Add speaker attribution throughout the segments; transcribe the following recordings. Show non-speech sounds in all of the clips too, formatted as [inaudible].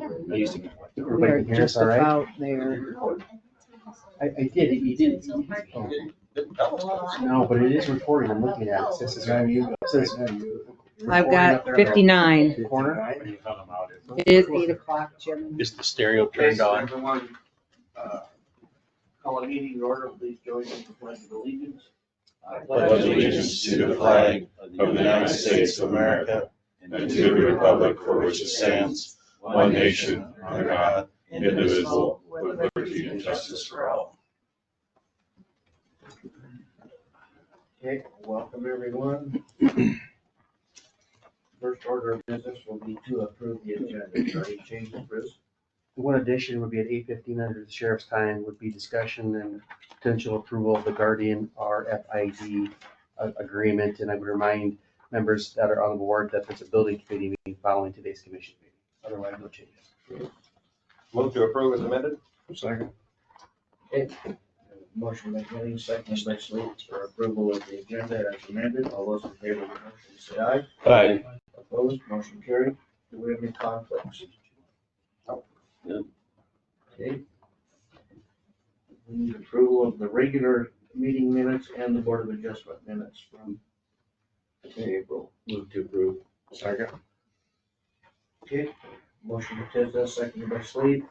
Speaker 1: I used to.
Speaker 2: They're
Speaker 3: Everybody can hear us
Speaker 2: just
Speaker 3: all right?
Speaker 2: about there.
Speaker 3: I, I did, you did. Oh, No, but it is recorded, I'm looking at it, says it's on you, says.
Speaker 2: I've got fifty-nine.
Speaker 3: Corner.
Speaker 2: It is eight o'clock, Jim.
Speaker 1: Is the stereo turned on?
Speaker 4: Everyone, uh, call a meeting in order, please join in the pledge of allegiance.
Speaker 5: pledge allegiance to the flag of the United States of America and to the republic for which it stands, one nation, under God, indivisible, with liberty and justice for all.
Speaker 4: Okay, welcome everyone. First order of business will be to approve the agenda. Any changes, Bruce?
Speaker 3: The one addition would be at eight fifteen under the sheriff's time would be discussion and potential approval of the Guardian RFID a- agreement. And I would remind members that are on the board that there's a building committee meeting following today's commission meeting. Otherwise, no changes.
Speaker 6: Move to approve as amended?
Speaker 3: Second.
Speaker 4: Motion by Kenny, second by Slate for approval of the agenda as amended. All those in favor of the motion say aye.
Speaker 6: Aye.
Speaker 4: Opposed, motion carried. Do we have any conflicts?
Speaker 1: No.
Speaker 4: Okay. We need approval of the regular meeting minutes and the Board of Adjustment minutes from April.
Speaker 3: Move to approve.
Speaker 4: Second. Okay, motion by Tisdale, second by Slate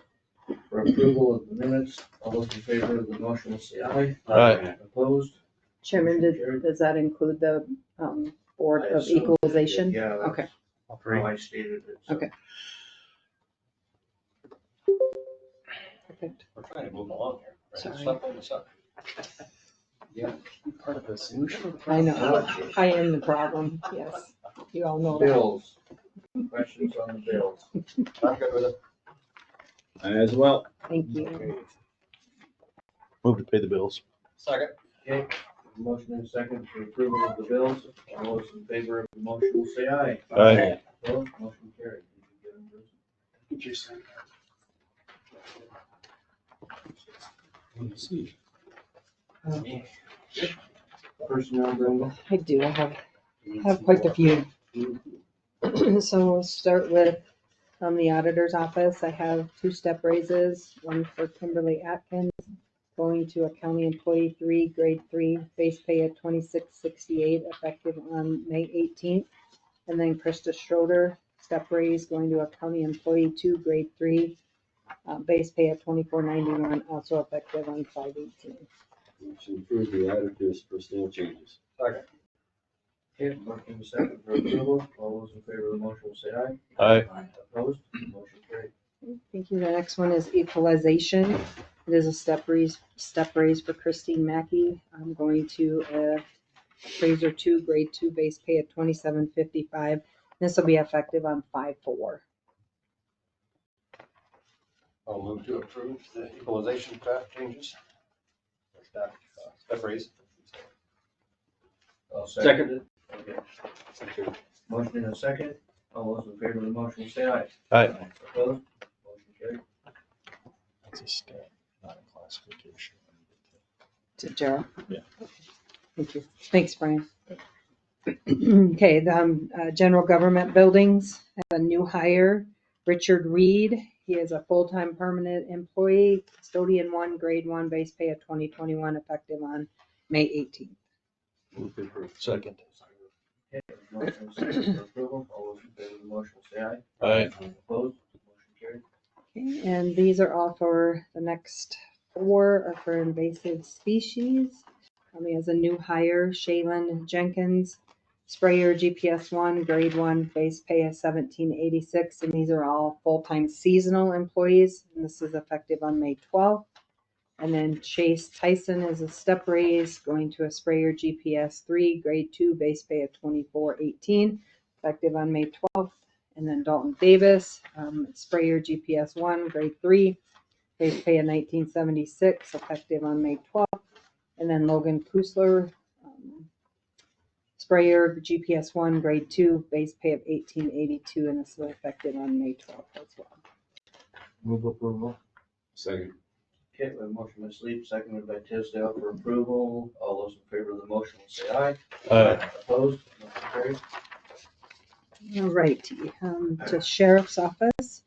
Speaker 4: for approval of the minutes. All those in favor of the motion say aye.
Speaker 6: Aye.
Speaker 4: Opposed?
Speaker 2: Chairman, did- does that include the um, Board
Speaker 4: I
Speaker 2: of
Speaker 4: assume that it-
Speaker 2: Equalization?
Speaker 4: Yeah. that's
Speaker 2: Okay.
Speaker 3: All three.
Speaker 4: How I stated it. so.
Speaker 2: Okay. Perfect.
Speaker 1: We're trying to move along here.
Speaker 2: Sorry.
Speaker 3: Part of the solution.
Speaker 2: I know, I am the problem, yes. You all know that.
Speaker 4: Bills. Questions on the bills?
Speaker 6: I'm good with it.
Speaker 5: As well.
Speaker 2: Thank you.
Speaker 5: Move to pay the bills.
Speaker 6: Second.
Speaker 4: Okay, motion and second for approval of the bills. All those in favor of the motion will say aye.
Speaker 5: Aye.
Speaker 4: Opposed, motion carried. Did you get them, Bruce? Personnel, Brenda?
Speaker 2: I do, I have, have quite a few. [clears throat] So we'll start with, um, the auditor's office, I have two step raises, one for Kimberly Atkins, going to a county employee three, grade three, base pay at twenty-six sixty-eight, effective on May eighteenth. And then Krista Schroeder, step raise, going to a county employee two, grade three, uh, base pay at twenty-four ninety-one, also effective on five eighteen.
Speaker 7: Motion to approve the auditor's personnel changes.
Speaker 4: Okay, motion and second for approval. All those in favor of the motion will say aye.
Speaker 5: Aye.
Speaker 4: Opposed, motion carried.
Speaker 2: Thank you. The next one is equalization. It is a step raise, step raise for Christine Mackey. I'm going to uh, appraiser two, grade two, base pay at twenty-seven fifty-five. This will be effective on five four.
Speaker 6: I'll move to approve the equalization staff changes. Or Staff, uh, staff raise.
Speaker 4: I'll
Speaker 6: Second.
Speaker 4: it. Okay. Motion and a second. All those in favor of the motion will say aye.
Speaker 5: Aye.
Speaker 4: Opposed, motion carried.
Speaker 5: That's a step, not a classification.
Speaker 2: To Gerald?
Speaker 5: Yeah.
Speaker 2: Thank you. Thanks, Brian. Okay, the um, uh, general government buildings, have a new hire, Richard Reed. He is a full-time permanent employee, custodian one, grade one, base pay of twenty twenty-one, effective on May eighteenth.
Speaker 7: Move to approve.
Speaker 5: Second.
Speaker 4: Motion and second for approval. All those in favor of the motion will say aye.
Speaker 5: Aye.
Speaker 4: Opposed, motion carried.
Speaker 2: Okay, and these are all for the next four are for invasive species. Um, he has a new hire, Shaylin Jenkins, sprayer GPS one, grade one, base pay of seventeen eighty-six, and these are all full-time seasonal employees, and this is effective on May twelfth. And then Chase Tyson is a step raise, going to a sprayer GPS three, grade two, base pay of twenty-four eighteen, effective on May twelfth. And then Dalton Davis, um, sprayer GPS one, grade three, base pay of nineteen seventy-six, effective on May twelfth. And then Logan Kusler, um, sprayer GPS one, grade two, base pay of eighteen eighty-two, and this was effective on May twelfth as well.
Speaker 4: Move approval.
Speaker 7: Second.
Speaker 4: Okay, we have a motion by Sleep, seconded by Tisdale for approval. All those in favor of the motion will say aye.
Speaker 5: Aye.
Speaker 4: Opposed, motion carried.
Speaker 2: All righty, um, to sheriff's office,